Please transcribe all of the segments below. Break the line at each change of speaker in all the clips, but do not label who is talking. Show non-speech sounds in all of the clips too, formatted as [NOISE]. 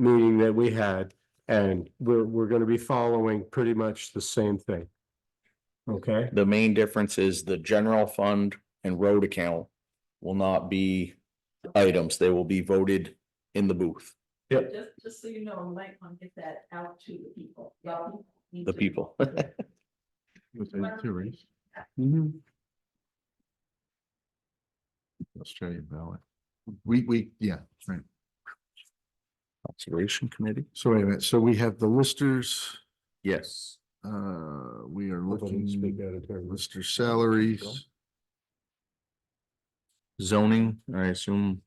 meeting that we had, and we're, we're gonna be following pretty much the same thing. Okay,
The main difference is the general fund and road account will not be items. They will be voted in the booth,
Yep.
Just, just so you know, we might want to get that out to the people. Well, we need
the
to-
people.
Was that two, right? Australian ballot. We, we, yeah, right.
Conservation Committee?
So wait a minute, so we have the listers,
Yes.
uh, we are
Hold on, let's speak
looking,
out of turn.
lister salaries.
Zoning, I assume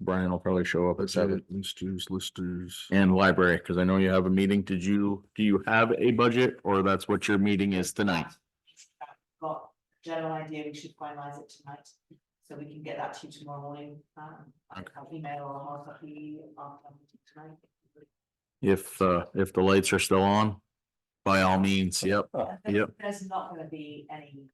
Brian will probably show up at seven.
Budget, listers, listers.
And library, because I know you have a meeting. Did you, do you have a budget or that's what your meeting is tonight?
Got a general idea, we should finalize it tonight, so we can get that to you tomorrow morning, um, I'll email or hard copy after the meeting tonight.
If, uh, if the lights are still on, by all means, yep. Uh, Yep.
There's not gonna be any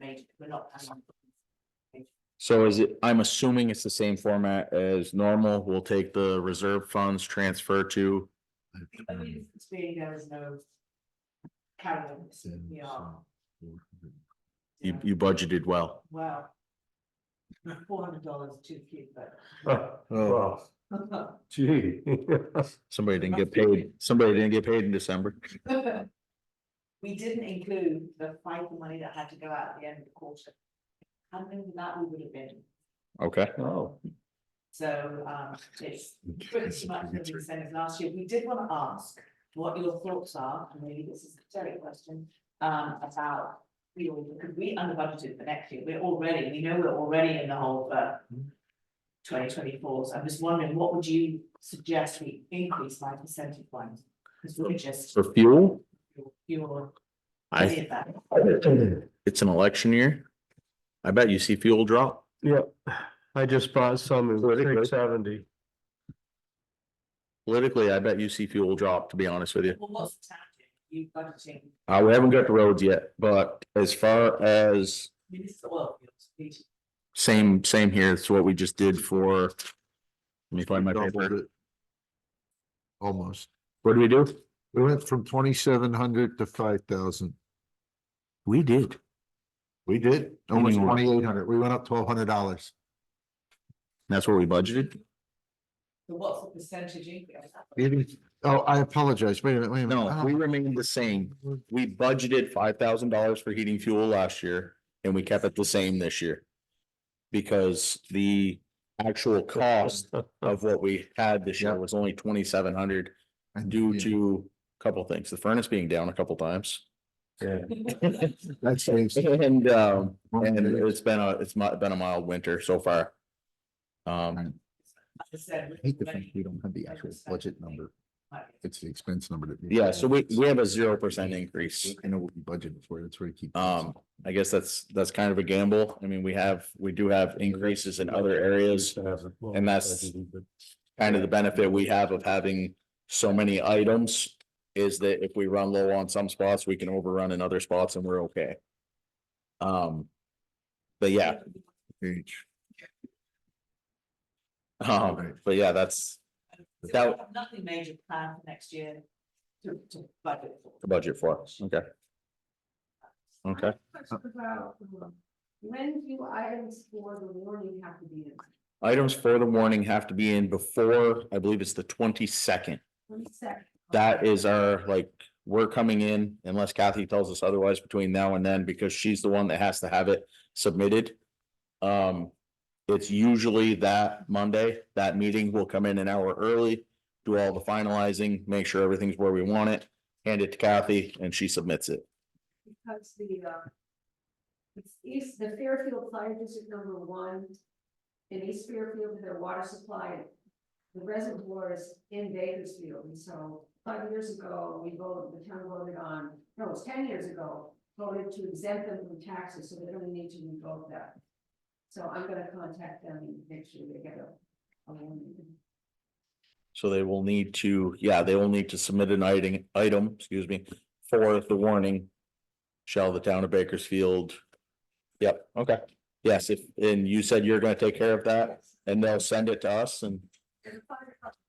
major, we're not. planning on-
So is it, I'm assuming it's the same format as normal. We'll take the reserve funds, transfer to,
I
Mm.
mean, it's being there is no. Carry on, this, we are.
you, you budgeted well.
Wow. Four hundred dollars too few,
[LAUGHS] Oh,
Oh,
well,
[LAUGHS]
but. [LAUGHS]
Gee. [LAUGHS]
somebody didn't get paid. Somebody didn't get paid in December.
[LAUGHS] We didn't include the fight money that had to go out at the end of the quarter. And then that we would have been,
Okay.
Oh,
so um it's pretty much the same as last year. We did want to ask what your thoughts are, and maybe this is a Terry question, um about. We all, because we under budgeted for next year, we're already, we know we're already in the hole for twenty twenty four, so I'm just wondering, what would you suggest we increase by percentage wise? Because we're just,
For fuel,
you're.
I, it's an election year. I bet you see fuel drop.
Yep, I just bought some in six seventy.
Politically, I bet you see fuel drop, to be honest with you.
Well, what's the town doing? You budgeting,
Uh, we haven't got the roads yet, but as far as
I mean, this is oil fields, we do-
same, same here, it's what we just did for. Let me find my
Doubled
paper.
it. Almost.
What do we do?
We went from twenty-seven hundred to five thousand.
We did.
We did. Almost
Anyway.
twenty-eight hundred. We went up twelve hundred dollars.
That's what we budgeted?
so what's the percentage increase?
Oh, I apologize. Wait a minute, wait a minute.
No, we remained the same. We budgeted five thousand dollars for heating fuel last year and we kept it the same this year. Because the actual cost of what we had this year was only twenty-seven hundred
And-
due
yeah,
to a couple things, the furnace being down a couple times.
Yeah,
That saves.
And um, and
Well,
it's been a, it's mi- been a mild winter so far. Um,
As [LAUGHS] I said,
I hate to think we don't have the actual budget number.
like,
It's the expense number that. we-
yeah, so we, we have a zero percent increase.
I know what we budgeted for, that's where I keep.
Um, I guess that's, that's kind of a gamble. I mean, we have, we do have increases in other areas. and that's- Kind of the benefit we have of having so many items is that if we run low on some spots, we can overrun in other spots and we're okay. Um, but yeah, [LAUGHS]
Page.
um, but yeah, that's
so we
that-
have Nothing major planned for next year to, to budget for.
the budget for us. Okay. Okay.
um, When do items for the warning have to be in?
Items for the warning have to be in before, I believe it's the twenty-second.
One second.
That is our, like, we're coming in unless Kathy tells us otherwise between now and then, because she's the one that has to have it submitted. Um, it's usually that Monday, that meeting will come in an hour early, do all the finalizing, make sure everything's where we want it. Hand it to Kathy and she submits it.
because the, uh, it's East, the Fairfield Fire District number one, in East Fairfield, their water supply, the reservoir is in Bakersfield, and so five years ago, we voted, the town voted on, no, it was ten years ago, voted to exempt them from taxes, so they don't need to revoke that. So I'm gonna contact them and make sure they get a, a warning.
So they will need to, yeah, they will need to submit an item, item, excuse me, for the warning. Shall the town of Bakersfield? Yep, okay. Yes, if, and you said you're gonna take care of that and they'll send it to us and
And the fire department